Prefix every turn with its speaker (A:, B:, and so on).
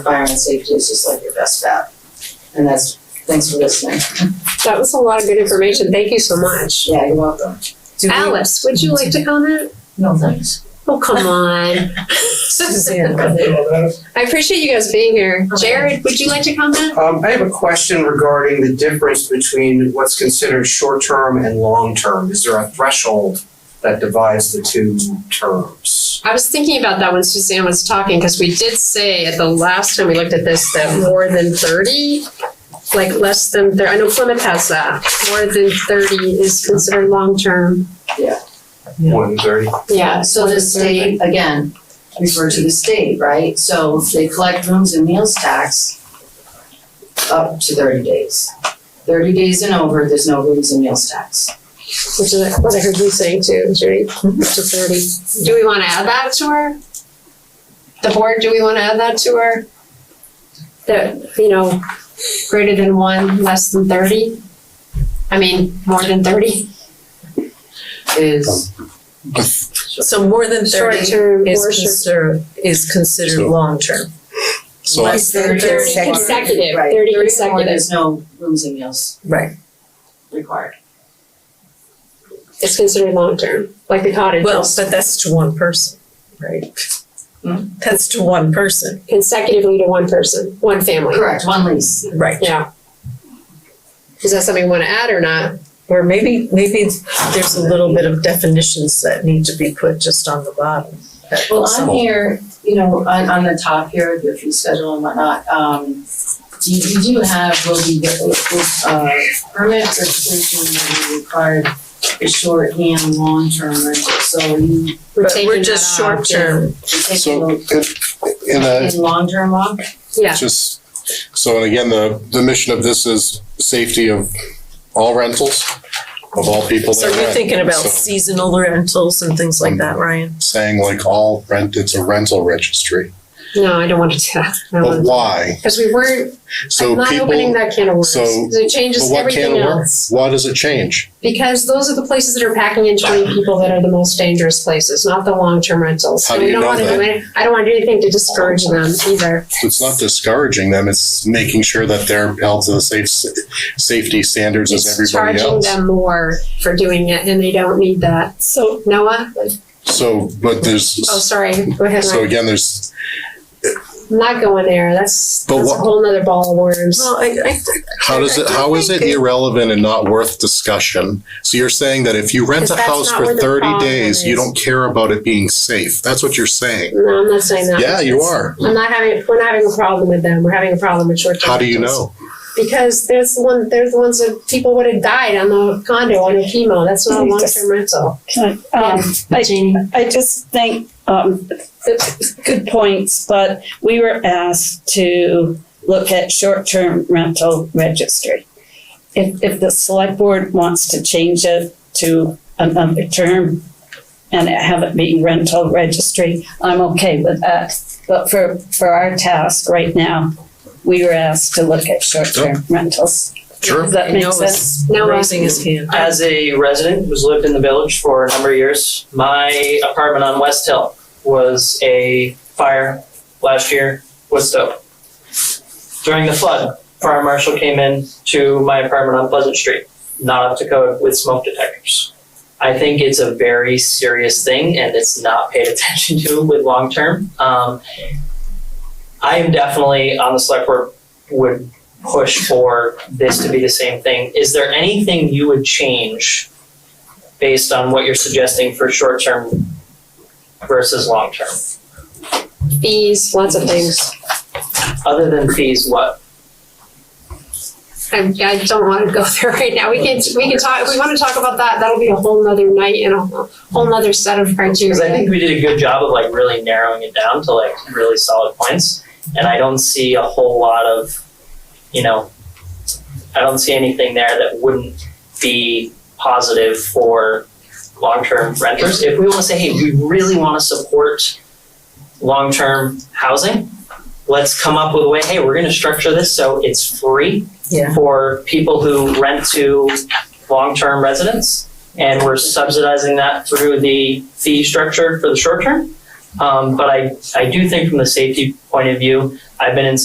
A: fire and safety is just like your best bet. And that's, thanks for listening.
B: That was a lot of good information. Thank you so much.
A: Yeah, you're welcome. Do we-
B: Alice, would you like to comment?
A: No, thanks.
B: Oh, come on.
A: Suzanne,
B: I appreciate you guys being here. Jared, would you like to comment?
C: Um, I have a question regarding the difference between what's considered short-term and long-term. Is there a threshold that divides the two terms?
B: I was thinking about that when Suzanne was talking because we did say at the last time we looked at this that more than 30, like less than, thir- I know Plymouth has that. More than 30 is considered long term.
C: One thirty.
B: Yeah.
A: So the state, again, refer to the state, right? So they collect rooms and meals tax up to thirty days. Thirty days and over, there's no rooms and meals tax.
B: Which is what I heard you saying too, is right? Up to 30. Do we want to add that to her? The board, do we want to add that to her? That, you know, greater than one, less than 30? I mean, more than 30?
A: Is,
D: So more than thirty
B: Short-term
D: is
B: or short-
D: considered, is considered
E: So-
D: long-term.
E: So I-
D: Less than
A: 30
D: thirty.
B: consecutive,
A: right,
B: 30
A: thirty or more,
B: consecutive.
A: there's no rooms and meals
D: Right,
A: required.
B: It's considered long term, like the cottage.
D: well,
B: is
D: but that's to one person, right?
A: Hmm?
D: That's to one person,
B: Consecutively to one person, one family.
A: Correct, one lease.
D: right.
B: Yeah. Is that something we want to add or not?
D: Or maybe, maybe there's a little bit of definitions that need to be put just on the bottom. that-
A: Well, on here, you know, on, on the top here, your fee schedule and whatnot, um, you, you do have, will be, uh, permit registration will be required for short and long-term rentals, so you
D: But
B: taking
D: we're
B: that
D: just
B: off, yeah.
D: short-term,
E: so uh,
A: taking
E: in, in a,
A: in long-term off,
B: Yeah,
E: just, so and again, the, the mission of this is safety of all rentals, of all people
D: so
E: that
D: you're
E: rent.
D: thinking about
E: So Um,
D: seasonal rentals and things like that, Ryan?
E: Saying like all rent, it's a rental registry,
B: no, I don't want to do that. I don't
E: but
B: want to.
E: why?
B: Because we weren't, I'm
E: So
B: Uh-huh. not opening
E: people,
B: that can of worms.
E: so-
B: 'cause It
E: but
B: changes
E: what can
B: everything
E: of work?
B: else.
E: Why does it change?
B: Because those are the places that are packing in twenty people that are the most dangerous places, not the long-term rentals.
E: How
B: So
E: do
B: we
E: you
B: don't
E: know
B: want to do
E: that?
B: any- I don't want to do anything to discourage them either.
E: It's not discouraging them, it's making sure that they're held to the safe, safety standards as
B: It's
E: everybody
B: charging
E: else.
B: them more for doing it and they don't need that. So. Noah?
E: So, but there's,
B: Oh, sorry. Go ahead.
E: so
B: Ryan.
E: again, there's
B: I'm Not going there. That's,
E: But
B: that's a
E: what-
B: whole nother ball of worms.
D: Well, I, I,
E: How does it, how is it irrelevant and not worth discussion? So you're saying that if you rent
B: Because
E: a
B: that's
E: house
B: not where
E: for
B: the
E: thirty
B: problem
E: days, you
B: is.
E: don't care about it being safe? That's what you're saying.
B: No, I'm not saying that.
E: Yeah, you are.
B: I'm not having, we're not having a problem with them. We're having a problem with short-term.
E: How do you
B: rentals.
E: know?
B: Because there's the one, there's the ones that people would have died on the condo on a chemo. That's not a long-term rental.
F: Can I, um, I, I just think, um, it's good points, but we were asked to look at short-term rental registry. If, if the select board wants to change it to another term and have it be rental registry, I'm okay with that. But for, for our task right now, we were asked to look at short-term rentals.
E: Sure.
F: Does that
D: I
F: make
D: know
F: sense?
D: it's
B: No, I-
D: raising his hand.
G: As a resident who's lived in the village for a number of years, my apartment on West Hill was a fire last year was stove. During the flood, fire marshal came in to my apartment on Pleasant Street, not up to code with smoke detectors. I think it's a very serious thing and it's not paid attention to with long term. Um, I am definitely on the select board would push for this to be the same thing. Is there anything you would change based on what you're suggesting for short term versus long term?
B: Fees, lots of things.
G: Other than fees, what?
B: I, I don't want to go there right now. We can, we can talk, if we want to talk about that, that'll be a whole nother night and a whole whole nother set of criteria.
G: Because I think we did a good job of like really narrowing it down to like really solid points. And I don't see a whole lot of, you know, I don't see anything there that wouldn't be positive for long-term renters. If we want to say, hey, we really want to support long-term housing, let's come up with a way, hey, we're going to structure this so it's free
D: Yeah.
G: for people who rent to long-term residents, and we're subsidizing that through the fee structure for the short term. Um, but I, I do think from the safety point of view, I've been in